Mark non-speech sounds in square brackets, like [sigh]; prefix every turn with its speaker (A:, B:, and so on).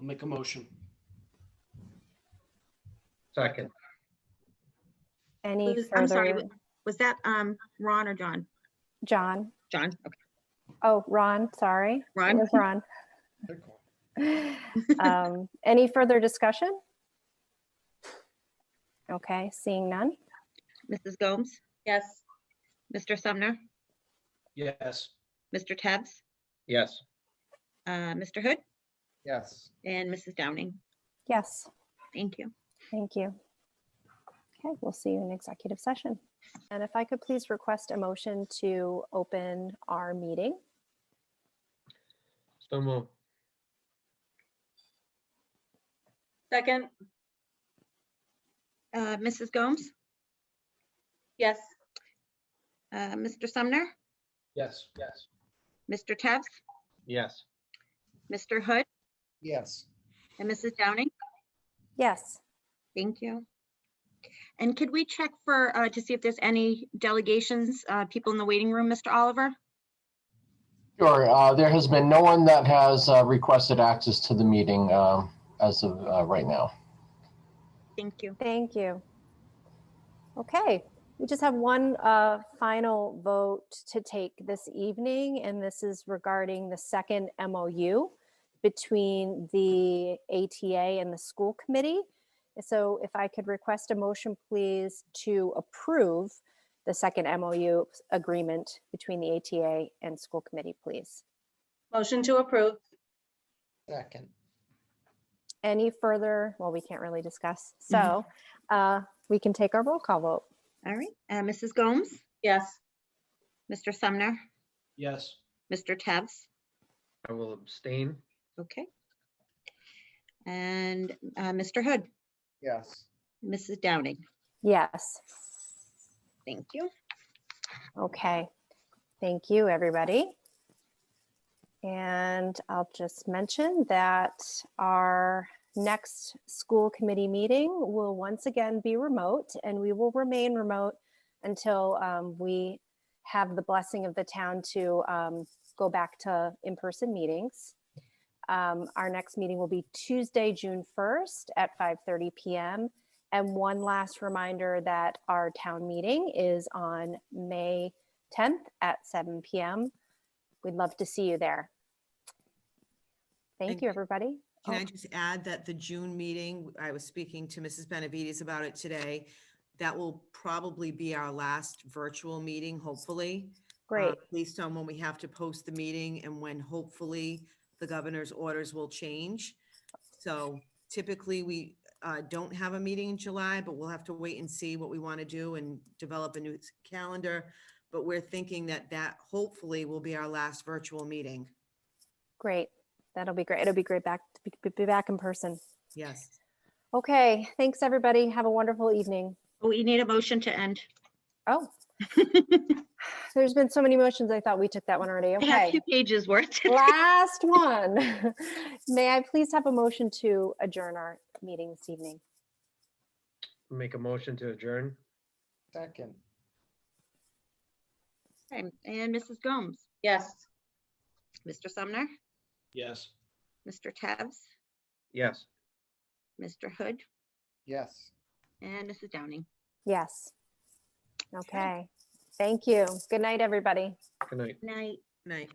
A: I'll make a motion.
B: Second,
C: Any
D: Liz, I'm sorry,
C: further?
D: Was that um Ron or John?
C: John?
D: John, okay,
C: Oh, Ron, sorry. It
D: Ron?
C: was
D: [laughs]
C: Ron. Um, Any further discussion? Okay, seeing none.
D: Mrs. Gomes,
E: yes,
D: Mr. Sumner,
A: Yes.
D: Mr. Tebs,
B: yes.
D: uh, Mr. Hood,
B: Yes.
D: and Mrs. Downing.
C: Yes,
D: Thank you.
C: thank you. Okay, we'll see you in executive session. And if I could please request a motion to open our meeting.
B: So move.
E: second,
D: Uh, Mrs. Gomes,
E: yes,
D: uh, Mr. Sumner,
A: Yes. Yes.
D: Mr. Tebs,
B: Yes.
D: Mr. Hood,
A: Yes.
D: and Mrs. Downing.
C: Yes,
D: Thank you. And could we check for, uh, to see if there's any delegations, uh, people in the waiting room, Mr. Oliver?
F: Sure. uh, There has been no one that has uh, requested access to the meeting um, as of uh, right now.
D: Thank you.
C: thank you. Okay, we just have one uh, final vote to take this evening, and this is regarding the second MOU between the ATA and the school committee. So if I could request a motion, please, to approve the second MOU agreement between the ATA and school committee, please.
E: motion to approve,
B: Second.
C: Any further, well, we can't really discuss, so uh, we can take our roll call vote.
D: All right, uh, Mrs. Gomes,
E: yes,
D: Mr. Sumner,
A: Yes.
D: Mr. Tebs,
B: I will abstain.
D: Okay. And uh, Mr. Hood,
B: Yes.
D: Mrs. Downing,
C: Yes,
D: thank you.
C: okay. Thank you, everybody. And I'll just mention that our next school committee meeting will once again be remote and we will remain remote until um, we have the blessing of the town to um, go back to in-person meetings. Um, Our next meeting will be Tuesday, June 1st at 5:30 PM. And one last reminder that our town meeting is on May 10th at 7 PM. We'd love to see you there. Thank
G: And
C: you, everybody.
G: Can
C: Oh.
G: I just add that the June meeting, I was speaking to Mrs. Benavides about it today. That will probably be our last virtual meeting, hopefully. uh,
C: Great.
G: Based on when we have to post the meeting and when hopefully the governor's orders will change. So typically, we uh, don't have a meeting in July, but we'll have to wait and see what we want to do and develop a new s- calendar. But we're thinking that that hopefully will be our last virtual meeting.
C: Great. That'll be great. It'll be great back, to be- be- be back in person.
G: Yes.
C: Okay, thanks, everybody. Have a wonderful evening.
D: Oh, We need a motion to end.
C: Oh. There's been so many motions. I thought we took that one already.
D: I have
C: Okay.
D: two pages worth. [laughs]
C: Last one. [laughs] May I please have a motion to adjourn our meeting this evening?
B: Make a motion to adjourn. Second.
D: And Mrs. Gomes,
E: yes.
D: Mr. Sumner,
A: Yes.
D: Mr. Tebs,
B: Yes.
D: Mr. Hood,
B: Yes.
D: and Mrs. Downing.
C: Yes. Okay, thank you. Good night, everybody.
B: Good night.
D: Night.
G: Night.